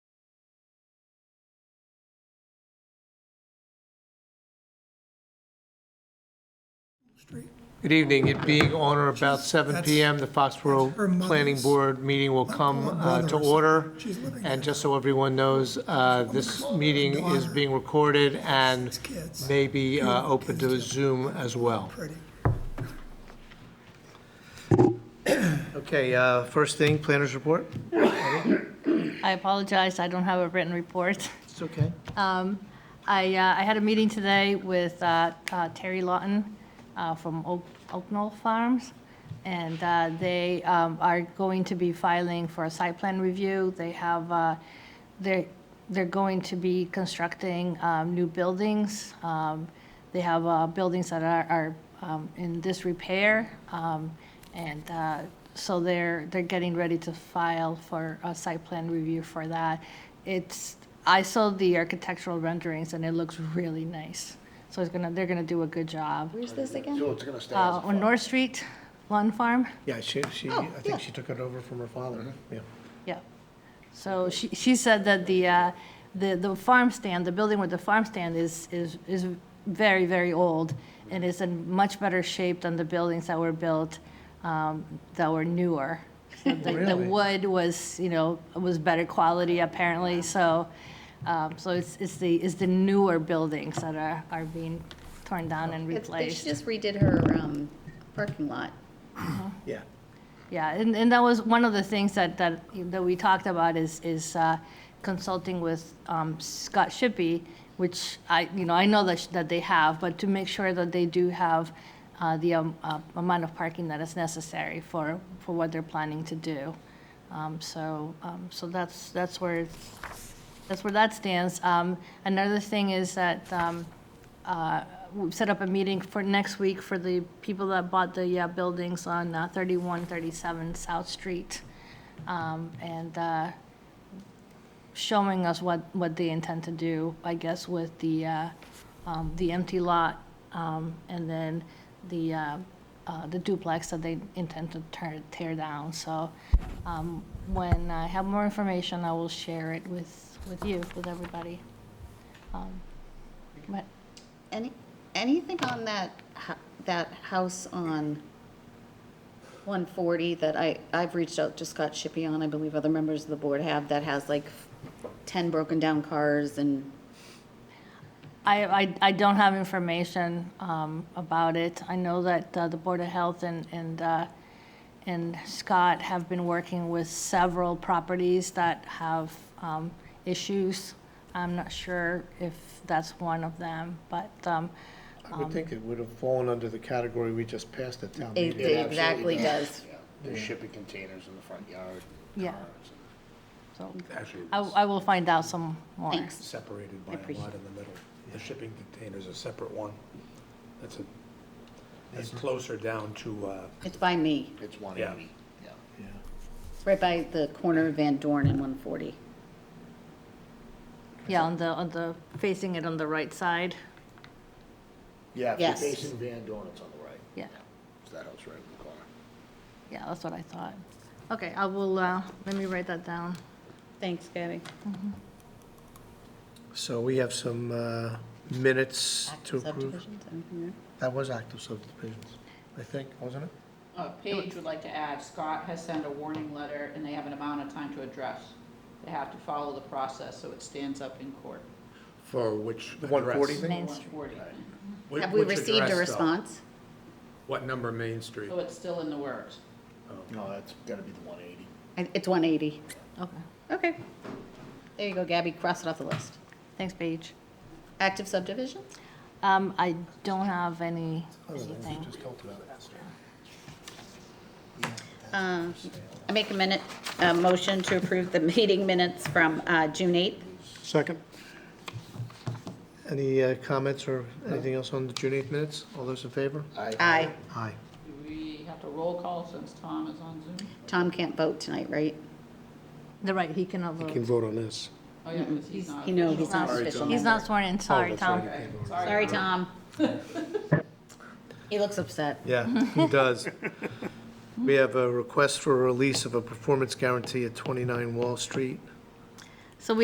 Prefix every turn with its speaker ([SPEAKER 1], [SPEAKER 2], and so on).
[SPEAKER 1] Street.
[SPEAKER 2] Good evening. It being on or about seven
[SPEAKER 1] That's-
[SPEAKER 2] PM, the Foxborough
[SPEAKER 1] that's her mother's-
[SPEAKER 2] Planning Board meeting will come
[SPEAKER 1] Her
[SPEAKER 2] uh, to
[SPEAKER 1] mother's-
[SPEAKER 2] order.
[SPEAKER 1] she's living there.
[SPEAKER 2] And just so everyone knows, uh, this meeting is
[SPEAKER 1] Daughter.
[SPEAKER 2] being recorded and
[SPEAKER 1] It's kids.
[SPEAKER 2] may be uh, open to
[SPEAKER 1] Kids do.
[SPEAKER 2] Zoom as well.
[SPEAKER 1] Pretty.
[SPEAKER 2] Okay, uh, first thing, planners report.
[SPEAKER 3] I apologize, I don't have a written report. Um,
[SPEAKER 2] It's okay.
[SPEAKER 3] I, uh, I had a meeting today with uh, uh, Terry Lawton uh, from Oak Oak Knoll Farms, and uh, they um, are going to be filing for a site plan review. They have, uh, they're, they're going to be constructing um, new buildings. Um, They have uh, buildings that are are um, in disrepair, um, and uh, so they're, they're getting ready to file for a site plan review for that. It's, I saw the architectural renderings, and it looks really nice. So it's gonna, they're gonna do a good job.
[SPEAKER 4] Where's this again?
[SPEAKER 2] So it's going to stay
[SPEAKER 3] Uh, On North Street, Lawn Farm,
[SPEAKER 2] Oh, Yeah, Mm-hmm. she, she, I think she took it over from her father. Yeah.
[SPEAKER 3] yeah. So she, she said that the, uh, the, the farm stand, the building with the farm stand is, is, is very, very old, and is in much better shape than the buildings that were built, um, that were newer. So The, the
[SPEAKER 2] Really?
[SPEAKER 3] wood was, you know, was better quality apparently, so, um, so it's, it's the, it's the newer buildings that are, are being torn down and
[SPEAKER 4] It's- they- She
[SPEAKER 3] replaced.
[SPEAKER 4] just redid her um, parking lot.
[SPEAKER 2] Yeah.
[SPEAKER 3] Yeah, and, and that was one of the things that, that, that we talked about is, is uh, consulting with um, Scott Shippey, which I, you know, I know that, sh- that they have, but to make sure that they do have uh, the um, uh, amount of parking that is necessary for, for what they're planning to do. Um, So, um, so that's, that's where, that's where that stands. Um, Another thing is that um, uh, we've set up a meeting for next week for the people that bought the uh, buildings on uh, 31, 37 South Street, um, and uh, showing us what, what they intend to do, I guess, with the, uh, um, the empty lot, um, and then the, uh, uh, the duplex that they intend to tear, tear down. So um, when I have more information, I will share it with, with you, with everybody. Um, But
[SPEAKER 4] Any, anything on that, ho- that house on 140 that I, I've reached out to Scott Shippey on, I believe other members of the board have, that has like 10 broken down cars and,
[SPEAKER 3] I, I, I don't have information um, about it. I know that uh, the Board of Health and, and, uh, and Scott have been working with several properties that have um, issues. I'm not sure if that's one of them, but, um,
[SPEAKER 2] I would think it would have fallen under the category we just passed at town
[SPEAKER 4] it
[SPEAKER 2] meeting.
[SPEAKER 4] it exactly does.
[SPEAKER 5] Yeah, There's shipping containers in the front yard.
[SPEAKER 3] Yeah.
[SPEAKER 5] cars,
[SPEAKER 3] so
[SPEAKER 5] and Actually,
[SPEAKER 3] I,
[SPEAKER 5] it's
[SPEAKER 3] I will find out some more.
[SPEAKER 4] Thanks.
[SPEAKER 6] separated by a
[SPEAKER 4] appreciate
[SPEAKER 6] lot in the middle. The shipping container's a separate one. That's a, that's closer down to, uh,
[SPEAKER 4] It's by me,
[SPEAKER 5] it's 180, yeah.
[SPEAKER 4] It's right by the corner of Van Dorn and 140.
[SPEAKER 3] Yeah, on the, on the, facing it on the right side,
[SPEAKER 5] Yeah, if
[SPEAKER 4] Yes.
[SPEAKER 5] you're facing Van Dorn, it's on the right.
[SPEAKER 3] Yeah.
[SPEAKER 5] It's that house right in the corner.
[SPEAKER 3] yeah, that's what I thought. Okay, I will, uh, let me write that down.
[SPEAKER 4] Thanks, Gabby.
[SPEAKER 2] So we have some uh, minutes to approve.
[SPEAKER 4] Subdivisions, anything there?
[SPEAKER 2] That was active subdivisions, I think, wasn't it?
[SPEAKER 7] Uh, Paige would like to add, Scott has sent a warning letter, and they have an amount of time to address. They have to follow the process, so it stands up in court.
[SPEAKER 6] for which
[SPEAKER 2] The 140
[SPEAKER 6] address?
[SPEAKER 2] thing?
[SPEAKER 3] Main Street.
[SPEAKER 7] 140.
[SPEAKER 6] Whi-
[SPEAKER 4] Have we
[SPEAKER 6] which
[SPEAKER 4] received
[SPEAKER 6] address,
[SPEAKER 4] a
[SPEAKER 6] though?
[SPEAKER 4] response?
[SPEAKER 6] What number Main Street?
[SPEAKER 7] So it's still in the works.
[SPEAKER 5] No, that's gotta be the 180.
[SPEAKER 4] I- It's 180.
[SPEAKER 3] Okay,
[SPEAKER 4] Okay. There you go, Gabby, cross it off the list.
[SPEAKER 3] thanks, Paige.
[SPEAKER 4] Active subdivisions?
[SPEAKER 3] Um, I don't have any, anything.
[SPEAKER 4] Um, I make a minute, a motion to approve the meeting minutes from uh, June 8th.
[SPEAKER 2] Second. Any uh, comments or anything else on the June 8th minutes? All those in favor?
[SPEAKER 4] Aye.
[SPEAKER 2] Aye.
[SPEAKER 7] Do we have to roll call since Tom is on Zoom?
[SPEAKER 4] Tom can't vote tonight, right?
[SPEAKER 3] The right, he cannot vote.
[SPEAKER 2] vote on this.
[SPEAKER 7] Oh, yeah, because he's
[SPEAKER 4] He's-
[SPEAKER 7] not.
[SPEAKER 4] You know, he's
[SPEAKER 3] He's not-
[SPEAKER 4] not official.
[SPEAKER 3] He's
[SPEAKER 4] member.
[SPEAKER 3] not sworn in, sorry, Tom.
[SPEAKER 4] Sorry, Tom. He looks upset.
[SPEAKER 2] Yeah, he does. We have a request for release of a performance guarantee at 29 Wall Street.